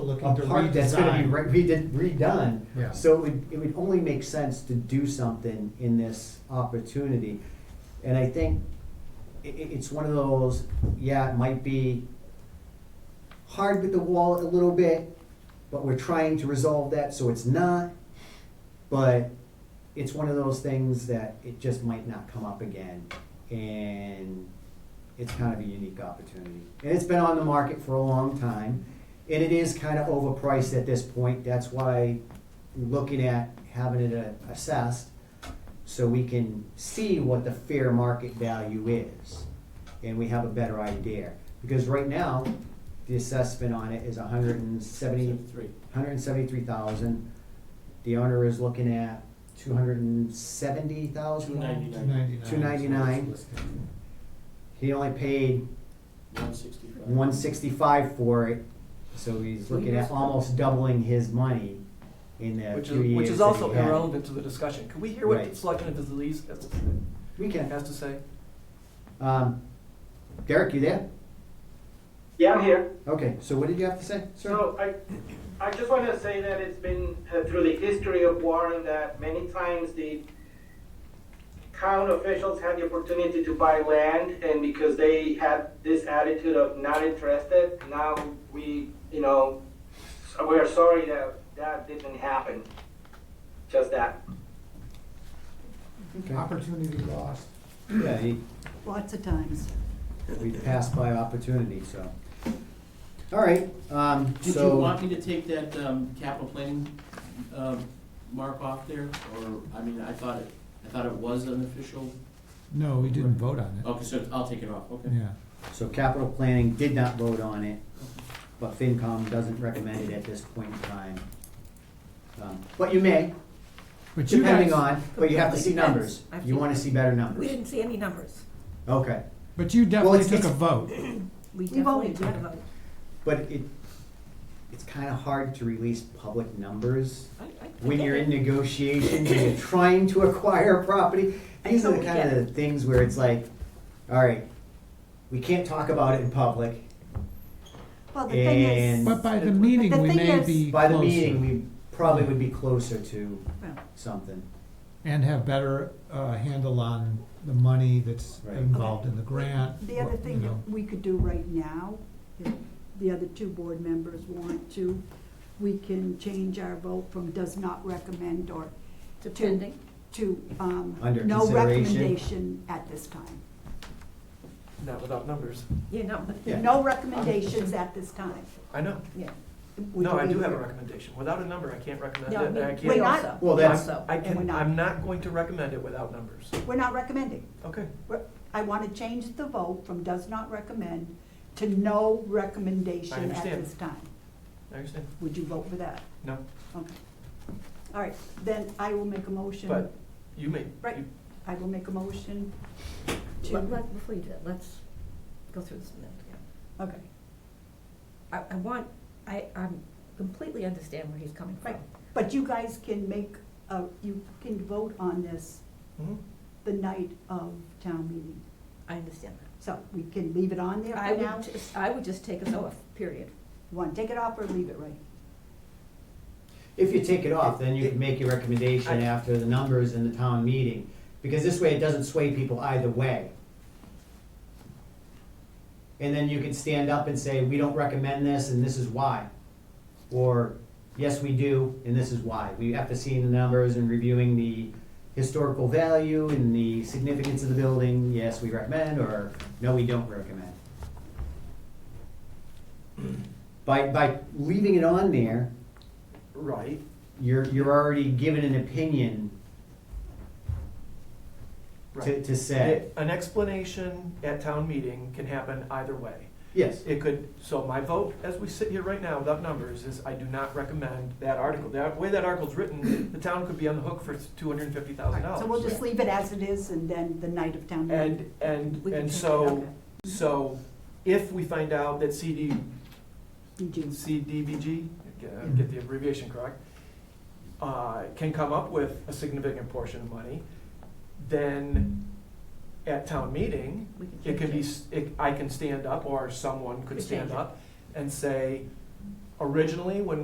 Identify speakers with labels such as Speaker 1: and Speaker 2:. Speaker 1: looking
Speaker 2: a
Speaker 1: to
Speaker 2: park that's gonna be
Speaker 1: redesign.
Speaker 2: re- redid- redone.
Speaker 1: Yeah.
Speaker 2: So it would, it would only make sense to do something in this opportunity. And I think i- i- it's one of those, yeah, it might be hard with the wall a little bit, but we're trying to resolve that, so it's not. But it's one of those things that it just might not come up again. And it's kind of a unique opportunity. And it's been on the market for a long time. And it is kind of overpriced at this point. That's why we're looking at having it uh, assessed so we can see what the fair market value is. And we have a better idea. Because right now, the assessment on it is a hundred and seventy, hundred and seventy-three thousand. The owner is looking at two hundred and seventy thousand.
Speaker 3: Two ninety-nine,
Speaker 1: 299.
Speaker 2: Two ninety-nine. He only paid
Speaker 3: one sixty-five.
Speaker 2: one sixty-five for it, so he's looking at almost doubling his money in the
Speaker 4: Which
Speaker 2: few
Speaker 4: is,
Speaker 2: years
Speaker 4: which is
Speaker 2: that he
Speaker 4: also
Speaker 2: had.
Speaker 4: irrelevant to the discussion. Can we hear what
Speaker 2: Right.
Speaker 4: the Selectman of Disease has to,
Speaker 2: We can, uh,
Speaker 4: has to say?
Speaker 2: um, Derek, you there?
Speaker 5: Yeah, I'm here.
Speaker 2: Okay, so what did you have to say, sir?
Speaker 5: So I, I just want to say that it's been uh, through the history of Warren that many times the town officials had the opportunity to buy land, and because they had this attitude of not interested, now we, you know, so we are sorry that that didn't happen. Just that.
Speaker 2: Okay.
Speaker 1: Opportunity lost.
Speaker 2: Yeah, he,
Speaker 6: Lots of times.
Speaker 2: we passed by opportunity, so. All right, um,
Speaker 3: Did you want
Speaker 2: so,
Speaker 3: me to take that, um, capital planning, um, mark off there, or, I mean, I thought it, I thought it was an official,
Speaker 7: No, we didn't vote on
Speaker 2: Oh.
Speaker 7: it.
Speaker 3: okay, so I'll take it off, okay.
Speaker 7: Yeah,
Speaker 2: so capital planning did not vote on it, but FinCom doesn't recommend it at this point in time. Um, But you may,
Speaker 7: but you
Speaker 2: depending
Speaker 7: guys,
Speaker 2: on, but you have to see
Speaker 8: Depends.
Speaker 2: numbers,
Speaker 8: I've
Speaker 2: you
Speaker 8: seen-
Speaker 2: wanna see better
Speaker 8: We
Speaker 2: numbers,
Speaker 8: didn't see any numbers.
Speaker 2: okay.
Speaker 7: but you
Speaker 2: Well,
Speaker 7: definitely
Speaker 2: it's-
Speaker 7: took a
Speaker 2: it's-
Speaker 7: vote.
Speaker 8: We
Speaker 6: We've only
Speaker 8: definitely did
Speaker 6: done-
Speaker 8: vote.
Speaker 2: But it, it's kind of hard to release public numbers
Speaker 8: I- I- I
Speaker 2: when
Speaker 8: get
Speaker 2: you're
Speaker 8: it.
Speaker 2: in negotiations and you're trying to acquire a property. These are the
Speaker 8: totally
Speaker 2: kind
Speaker 8: get
Speaker 2: of things where it's like, all right, we can't talk about it in public.
Speaker 6: Well, the thing is,
Speaker 2: And-
Speaker 7: But by the
Speaker 2: But
Speaker 7: meeting,
Speaker 6: the
Speaker 7: we
Speaker 6: thing
Speaker 7: may
Speaker 6: is-
Speaker 7: be
Speaker 2: By the meeting,
Speaker 7: closer
Speaker 2: we probably would be closer to
Speaker 6: well,
Speaker 2: something.
Speaker 7: and have better uh, handle on the money that's
Speaker 2: Right.
Speaker 7: involved in the grant.
Speaker 6: the other
Speaker 7: what, you
Speaker 6: thing
Speaker 7: know.
Speaker 6: that we could do right now, if the other two board members want to, we can change our vote from does not recommend or
Speaker 8: Depending.
Speaker 6: to, um,
Speaker 2: Under
Speaker 6: no
Speaker 2: consideration.
Speaker 6: recommendation at this time.
Speaker 4: Not without numbers.
Speaker 8: You know, but-
Speaker 2: Yeah.
Speaker 6: No recommendations at this time.
Speaker 4: I know.
Speaker 8: yeah.
Speaker 6: Would
Speaker 4: No,
Speaker 6: you
Speaker 4: I do
Speaker 6: agree?
Speaker 4: have a recommendation. Without a number, I can't recommend it.
Speaker 8: No, I
Speaker 4: and I
Speaker 8: mean,
Speaker 4: can't-
Speaker 6: We're
Speaker 8: we
Speaker 6: not-
Speaker 8: also.
Speaker 2: Well,
Speaker 8: we
Speaker 2: that's-
Speaker 8: also.
Speaker 4: I
Speaker 6: And we're
Speaker 4: can,
Speaker 6: not.
Speaker 4: I'm not going to recommend it without numbers.
Speaker 6: We're not recommending.
Speaker 4: Okay.
Speaker 6: We're- I want to change the vote from does not recommend to no recommendation at
Speaker 4: understand.
Speaker 6: this time.
Speaker 4: I understand.
Speaker 6: Would you vote for that?
Speaker 4: No,
Speaker 6: Okay. All right, then I will make a motion.
Speaker 4: but you may.
Speaker 6: Right.
Speaker 4: you-
Speaker 6: I will make a motion to,
Speaker 8: Let- let- Before you do that, let's go through this a minute again.
Speaker 6: okay,
Speaker 8: I, I want, I, I completely understand where he's coming from.
Speaker 6: right. But you guys can make, a- you can vote on this
Speaker 4: mhm.
Speaker 6: the night of town meeting.
Speaker 8: I understand that.
Speaker 6: So we can leave it on there
Speaker 8: I
Speaker 6: for now?
Speaker 8: would, just- I would just take us off, period.
Speaker 6: Want to take it off or leave it right?
Speaker 2: If you take it off, then you can make your recommendation after the numbers in the town meeting, because this way it doesn't sway people either way. And then you can stand up and say, we don't recommend this and this is why. Or, yes, we do, and this is why. We, after seeing the numbers and reviewing the historical value and the significance of the building, yes, we recommend, or no, we don't recommend. By, by leaving it on there,
Speaker 4: Right.
Speaker 2: you're, you're already given an opinion to,
Speaker 4: Right.
Speaker 2: to say.
Speaker 4: An explanation at town meeting can happen either way.
Speaker 2: Yes,
Speaker 4: It could, so my vote, as we sit here right now without numbers, is I do not recommend that article. The way that article's written, the town could be on the hook for two hundred and fifty
Speaker 6: All
Speaker 4: thousand
Speaker 6: right, so we'll
Speaker 4: dollars.
Speaker 6: just leave it as it is and then the night of town meeting.
Speaker 4: And, and,
Speaker 8: We can
Speaker 4: and
Speaker 8: take it,
Speaker 4: so,
Speaker 8: okay.
Speaker 4: so if we find out that CD,
Speaker 6: You do.
Speaker 4: CDVG, get- uh, get the abbreviation correct, uh, can come up with a significant portion of money, then at town meeting,
Speaker 8: We can
Speaker 4: It
Speaker 8: change
Speaker 4: could be, s- it- I can stand up, or someone
Speaker 8: Could
Speaker 4: could stand
Speaker 8: change it.
Speaker 4: up and say, originally, when